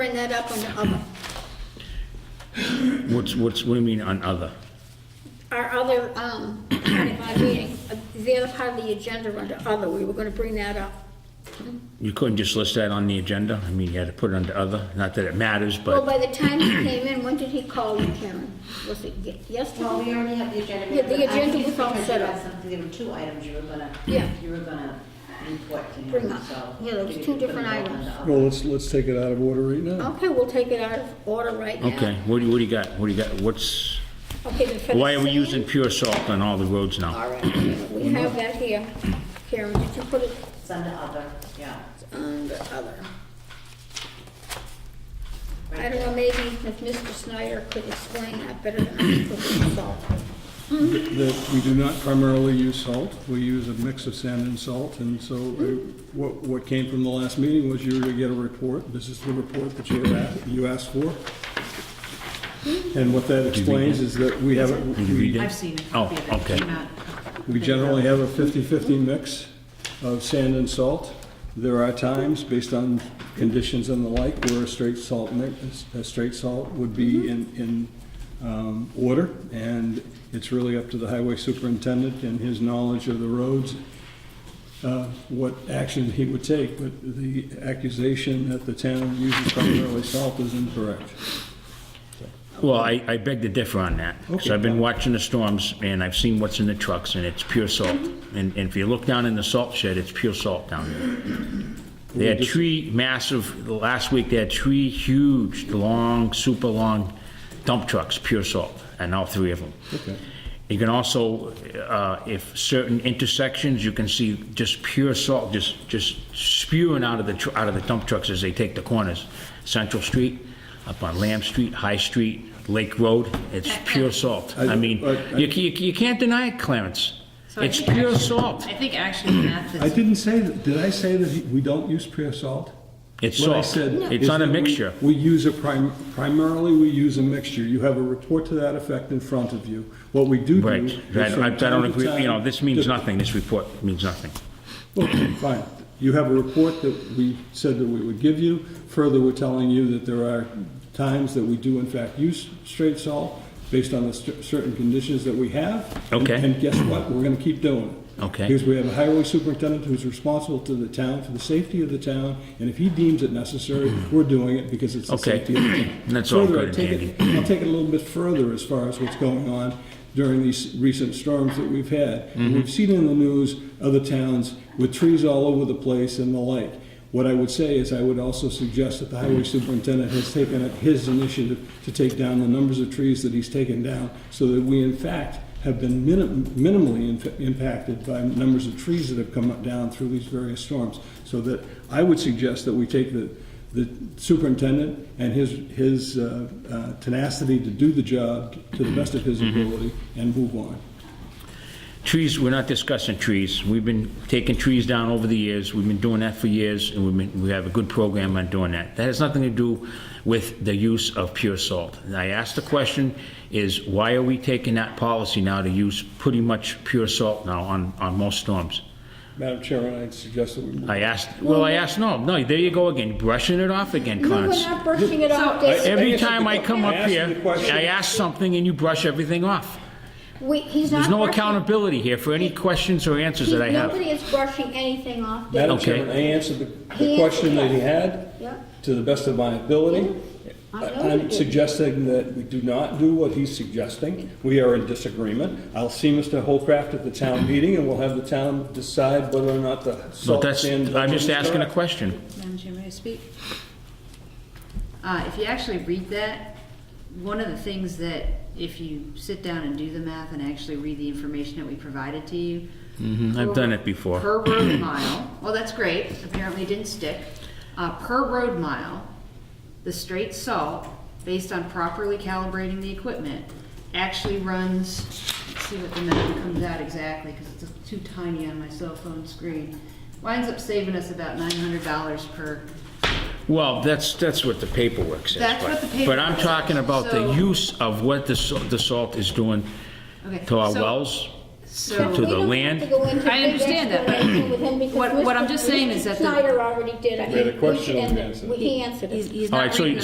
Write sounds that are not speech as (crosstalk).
Bring that up on the other, What's, what's, what do you mean on other? our other, um, part of our meeting, uh, the other part of the agenda under other, we were gonna bring that up. You couldn't just list that on the agenda? I mean, you had to put it under other? Not that it matters, Well, but by the time he came in, when did he call you, Karen? Was it ye- Well, yesterday? we already have the agenda. Yeah, the but I agenda think was all because set you had up. something- There were two items you were gonna, Yeah. you were gonna report to Bring him, up. so. Yeah, there was we two could put different it all items. under- Well, let's, let's take it out of order right now. Okay, we'll take it out of order right now. okay. What do you, what do you got? What do you got? What's, Okay, then for the why are we sand- using pure salt on all the roads now? All right, we have that here. Karen, did you put it It's under other, yeah. under other? I right don't know, maybe if Mr. Snyder could explain that better than I could, so. That we do not primarily use salt, we use a mix of sand and salt, and so uh, what, what came from the last meeting was you were to get a report, this is the report that you had, asked- you asked for. And what that explains is that we have, a- Did you read we it? I've seen it. Oh, okay. We generally have a 50-50 mix of sand and salt. There are times, based on conditions and the like, where a straight salt mix, a straight salt would be in, in um, order, and it's really up to the highway superintendent and his knowledge of the roads, uh, what action he would take, but the accusation that the town uses primarily salt is incorrect. Well, I, I beg to differ on that. Okay. So I've been watching the storms and I've seen what's in the trucks and it's pure salt. And, and if you look down in the salt shed, it's pure salt down there. They had three massive, last week they had three huge, long, super long dump trucks, pure salt, and all three of them. Okay. You can also, uh, if certain intersections, you can see just pure salt, just, just spewing out of the, tr- out of the dump trucks as they take the corners. Central Street, up on Lamb Street, High Street, Lake Road, it's pure salt. I- I mean, I- I- you, ca- you can't deny it, Clarence. So I It's think pure actually- salt. I think actually Matt I is, didn't say, that. did I say that he- we don't use pure salt? It's What I salt. said It's is not a that we- mixture. We use a prim, primarily, we use a mixture. You have a report to that effect in front of you. What we do do. Right. is I from I- I time don't to agree, you know, time- this means nothing, this report means nothing. Okay, fine. You have a report that we said that we would give you. Further, we're telling you that there are times that we do in fact use straight salt based on the cer- certain conditions that we have. And- Okay. And guess what? We're gonna keep doing it. Okay. Because we have a highway superintendent who's responsible to the town for the safety of the town, and if he deems it necessary, we're doing it because it's the Okay. safety of the town. And (clears throat) that's all Further, good and I take it- I'll take it a little bit further as far as what's going on during these recent storms that we've had. Mm-hmm. And We've seen in the news other towns with trees all over the place and the like. What I would say is I would also suggest that the highway Mm-hmm. superintendent has taken up his initiative to take down the numbers of trees that he's taken down so that we in fact have been minim- minimally in- impacted by numbers of trees that have come up down through these various storms. So that I would suggest that we take the, the superintendent and his, his uh, uh, tenacity to do the job to the best of his Mm-hmm. ability and move on. Trees, we're not discussing trees. We've been taking trees down over the years. We've been doing that for years, and we've been, we have a good program on doing that. That has nothing to do with the use of pure salt. And I asked the question is, why are we taking that policy now to use pretty much pure salt now on, on most storms? Madam Chair, I'd suggest that we move. I asked, well, I asked, no, no, there you go again, brushing it off again, No, Clarence. we're not brushing it off So- this. Every answered time the I que- come I up asked here, you the question. I ask something and you brush everything off. We, he's not. There's no brushing- accountability here for any questions or answers he- that I have. Nobody is brushing anything off this. Madam Okay. Chairman, I answered the- He the question that he had Yeah. to the best of my ability. I know I- you I'm did. suggesting that we do not do what he's suggesting. We are in disagreement. I'll see Mr. Holcraft at the town meeting, and we'll have the town decide whether or not the But salt that's, sand... I'm just asking a question. Madam Chair, may I speak? Uh, if you actually read that, one of the things that, if you sit down and do the math and actually read the information that we provided to you. Mhm, I've per- done it before. Per (clears throat) road mile, well, that's great, apparently it didn't stick. Uh, per road mile, the straight salt, based on properly calibrating the equipment, actually runs, let's see what the number comes out exactly, because it's too tiny on my cell phone screen. Winds up saving us about nine hundred dollars per Well, that's, that's what the paperwork says. That's what but- the paperwork But I'm talking says. about the So- use of what the, sa- the salt is doing Okay, to our so- wells, So- to We the don't have land. to go into I big understand that, but explanation with him because what- what I'm Mr. just saying is that the- Snyder already did. I We had a think question should end and it. answer. We answered it. He's, he's All not right, so reading you-